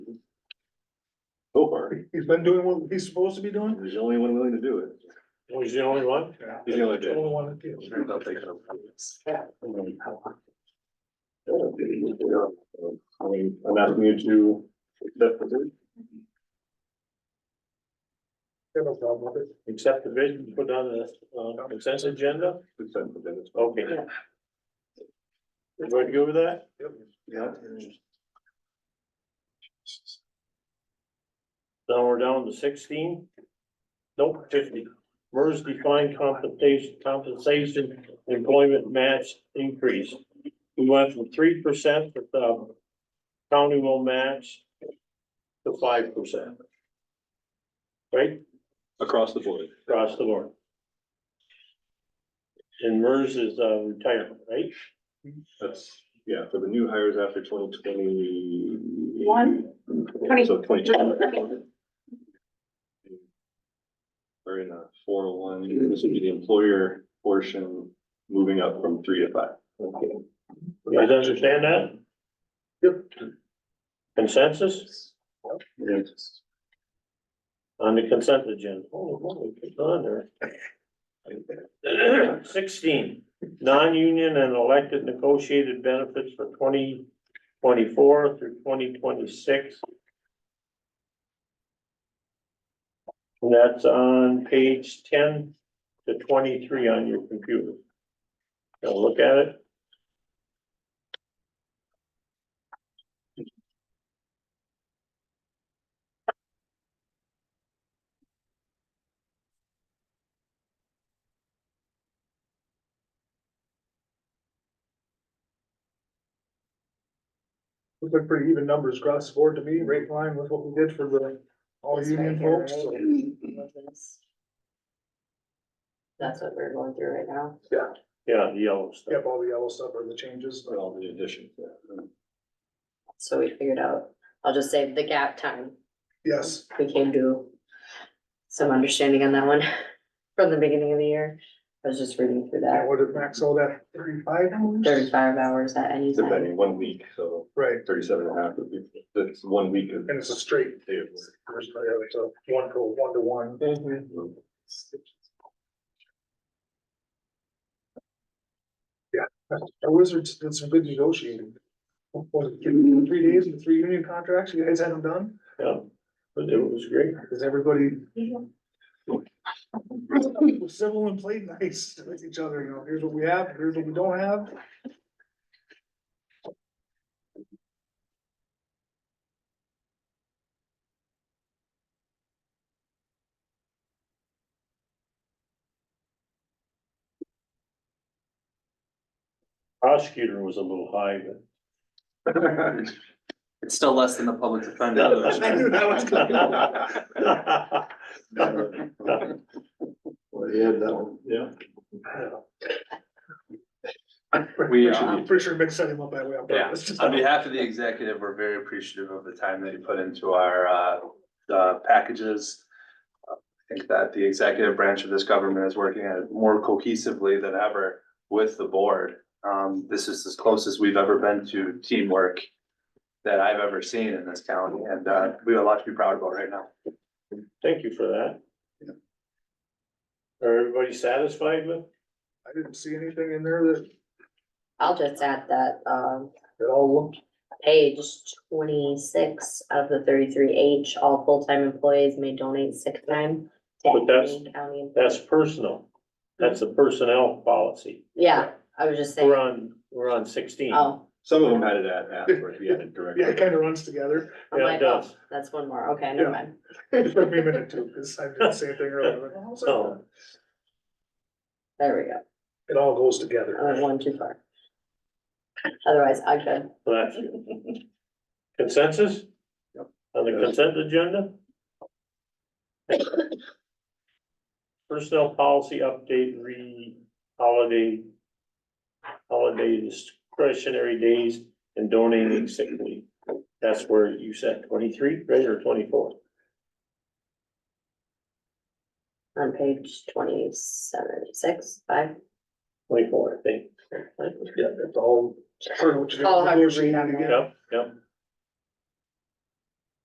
property. He's been doing what he's supposed to be doing? He's the only one willing to do it. Oh, He's the only one? He's the only The one. only one that deals. I'll take it. I'm asking you to accept the bid. Got no problem with it. Accept the bid, and put on the uh, consent agenda? Accept the bid. It's- Okay. Everybody good with that? Yeah. Now we're down to sixteen? Nope, fifty. MERS defined compensation, compensation employment match increase. We went from three percent that the county will match to five percent. Right? Across the board. across the board. And MERS is uh, retirement, right? That's, yeah, for the new hires after twenty twenty. One? Twenty- So twenty two. We're in a four oh one, this would be the employer portion moving up from three to five. Okay. You guys understand that? Yep. Consensus on the consent agenda? Oh, holy, it's on there. Sixteen, non-union and elected negotiated benefits for twenty twenty-four through twenty twenty-six. And that's on page ten to twenty-three on your computer. Now look at it. Looks like pretty even numbers across the board to me, right in line with what we did for the all union folks. so. That's what we're going through right now. Yeah, the yellow stuff. Yep, all the yellow stuff are the changes. But all the additions. yeah. So we figured out, I'll just say the gap time, Yes, we came to some understanding on that one from the beginning of the year. I was just reading through and that, what did Max all that thirty-five hours? thirty-five hours at any time. Depending, one week, so Right, thirty-seven and a half would be, that's one week of. and it's a straight day of first, uh, so one to one to one. work. Our wizards did some good negotiating. Was it three days and three union contracts? You guys had them done? Yeah, but it was great. Cause everybody Mm-hmm. was civil and played nice with each other, you know, here's what we have, here's what we don't have. Prosecutor was a little high, but. It's still less than the public defender. No, though. I knew that was Well, yeah, that one. Yeah. We, Pretty sure- um, Pretty sure Mick set him up that way on Yeah. purpose. On behalf of the executive, we're very appreciative of the time that you put into our, uh, uh, packages. I think that the executive branch of this government is working at it more cohesively than ever with the board. Um, this is as close as we've ever been to teamwork that I've ever seen in this county, and, uh, we have a lot to be proud about right now. Thank you for that. Are everybody satisfied with? I didn't see anything in there that, I'll just add that, um, that all looked, page twenty-six of the thirty-three H, all full-time employees may donate sick time to But that's- any county. employee. That's personal. That's the personnel policy. Yeah, I was just We're saying, on, we're on sixteen. oh, Some of them had it at, afterwards, we had it directly. yeah, it kinda runs together. I'm Yeah, it like, oh, does. that's one more, okay, never Yeah. mind. It took me a minute too, cause I did the same thing earlier. like, "How's that?" So- There we go. It all goes I went together. Oh, one too far. Otherwise, I could. So that's consensus? On the consent agenda? Personnel policy update, re, holiday, holiday discretionary days and donating sick leave. That's where you said twenty-three, right, or twenty-four? On page twenty-seven, six, five. Twenty-four, I think. It's all. part of what you All got hard to read negotiated on again. Yep, yep.